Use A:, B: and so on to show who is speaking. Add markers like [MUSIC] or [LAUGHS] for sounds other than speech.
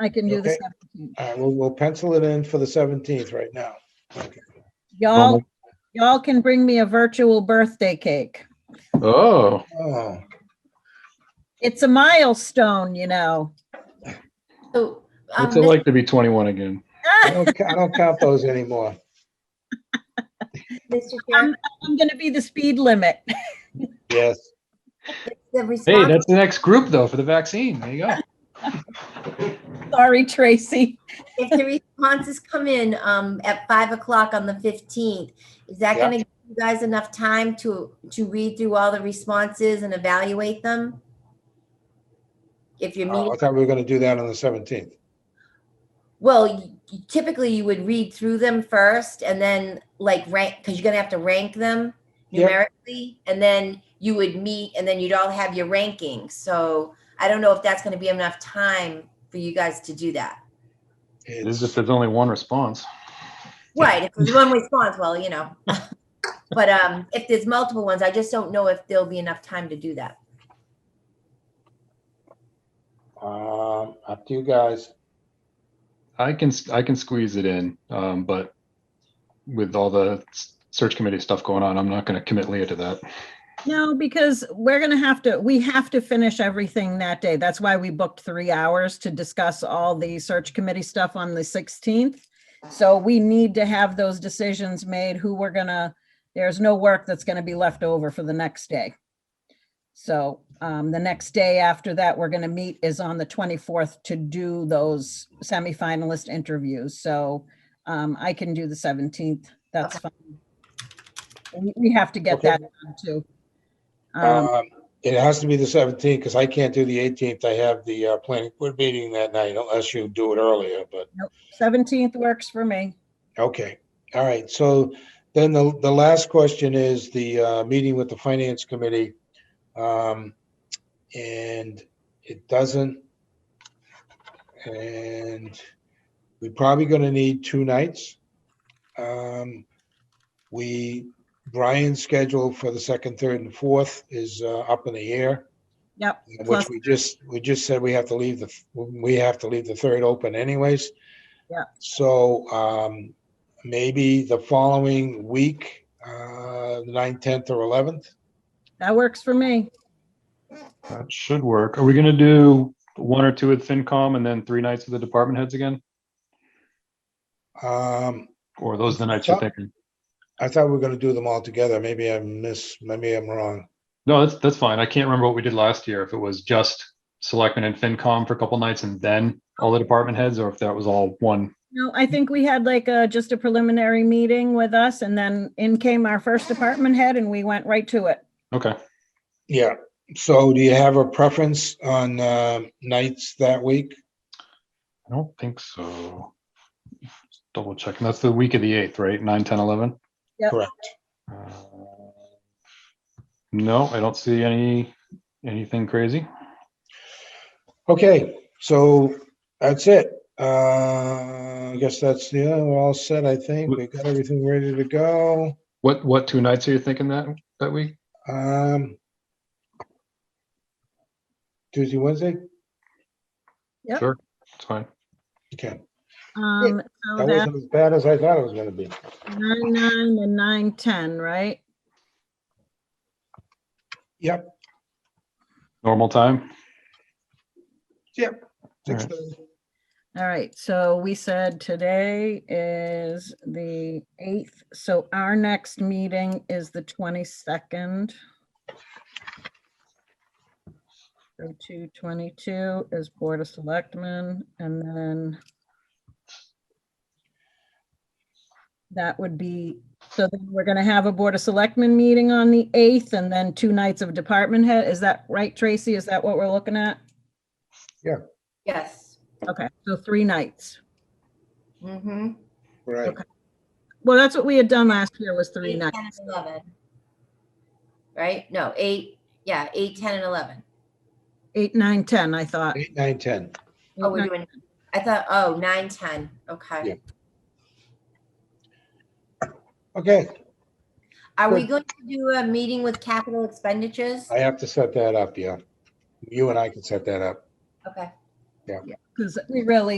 A: I can do the
B: Okay.
A: 17th.
B: All right, we'll, we'll pencil it in for the 17th right now. Okay.
A: Y'all, y'all can bring me a virtual birthday cake.
C: Oh,
B: Oh,
A: It's a milestone, you know.
D: So, um,
C: what's it
D: Mr.
C: like to be 21 again?
B: I don't, ca- I don't count those anymore.
D: Mr.
C: Um,
D: Chair,
A: I'm gonna be the speed limit. [LAUGHS]
B: Yes.
D: the
C: Hey,
D: response,
C: that's the next group though for the vaccine. There you go.
A: Sorry, Tracy.
D: if the responses come in, um, at five o'clock on the fifteenth, is that
B: Yeah.
D: gonna give you guys enough time to, to read through all the responses and evaluate them? If
B: Oh,
D: you're
B: I
D: meeting,
B: thought we were going to do that on the 17th.
D: well, y- y- typically you would read through them first and then like rank, because you're gonna have to rank them
B: Yeah.
D: numerically, and then you would meet, and then you'd all have your rankings. So I don't know if that's gonna be enough time for you guys to do that.
C: It's
B: It's,
C: just there's only one response.
D: Right, if there's one response, well, you know. But um, if there's multiple ones, I just don't know if there'll be enough time to do that.
B: um, up to you guys.
C: I can I can squeeze it in, um, but with all the s- search committee stuff going on, I'm not going to commit Leah to that.
A: No, because we're gonna have to, we have to finish everything that day. That's why we booked three hours to discuss all the search committee stuff on the 16th. So we need to have those decisions made, who we're gonna, there's no work that's gonna be left over for the next day. So um, the next day after that, we're gonna meet is on the 24th to do those semifinalist interviews. So um, I can do the 17th. That's fine. We- We have to get
B: Okay.
A: that done too. Um,
B: Um, It has to be the 17th because I can't do the 18th. I have the uh, planning board meeting that night unless you do it earlier, but,
A: 17th works for me.
B: okay. All right, so then the, the last question is the uh, meeting with the finance committee. Um, And it doesn't. And we're probably going to need two nights. Um, We, Brian's schedule for the second, third, and fourth is uh, up in the air.
A: Yep.
B: Which
A: Plus-
B: we just, we just said we have to leave the, we have to leave the third open anyways.
A: Yeah.
B: So um, maybe the following week, uh, the ninth, tenth or eleventh?
A: That works for me.
C: That should work. Are we going to do one or two with FinCom and then three nights with the department heads again?
B: Um,
C: Or are those the nights you're thinking?
B: I thought we were gonna do them all together. Maybe I miss, maybe I'm wrong.
C: No, that's that's fine. I can't remember what we did last year. If it was just selectmen and FinCom for a couple nights and then all the department heads, or if that was all one.
A: No, I think we had like a, just a preliminary meeting with us and then in came our first department head and we went right to it.
C: Okay.
B: Yeah, so do you have a preference on uh, nights that week?
C: I don't think so. Double checking. That's the week of the eighth, right? Nine, ten, eleven?
A: Yep.
B: Correct.
C: Uh, No, I don't see any, anything crazy.
B: Okay, so that's it. Uh, I guess that's, yeah, we're all set, I think. We got everything ready to go.
C: What, what two nights are you thinking that, that week?
B: Um. Tuesday, Wednesday?
A: Yep.
C: Sure, it's fine.
B: Okay,
A: Um, so
B: that
A: that's
B: wasn't as bad as I thought it was gonna be.
A: nine, nine and nine, 10, right?
B: Yep,
C: Normal time?
B: yep.
C: All
B: Six
C: right.
B: thirty.
A: All right, so we said today is the 8th, so our next meeting is the 22nd. So 222 is Board of Selectmen, and then that would be, so then we're going to have a Board of Selectmen meeting on the 8th, and then two nights of department head. Is that right, Tracy? Is that what we're looking at?
D: Yes.
A: Okay, so three nights.
D: Mm-hmm.
B: Right,
A: Okay. Well, that's what we had done last year was three
D: Eight,
A: nights.
D: ten, and eleven. Right? No, eight, yeah, eight, ten, and eleven.
A: Eight, nine, ten, I thought.
B: eight, nine, ten.
D: Oh, we're
A: Eight,
D: doing, I thought, oh, nine, ten, okay.
B: Yeah. Okay,
D: Are we going to do a meeting with capital expenditures?
B: I have to set that up, yeah. You and I can set that up.
D: Okay,
B: Yeah.
A: Because we really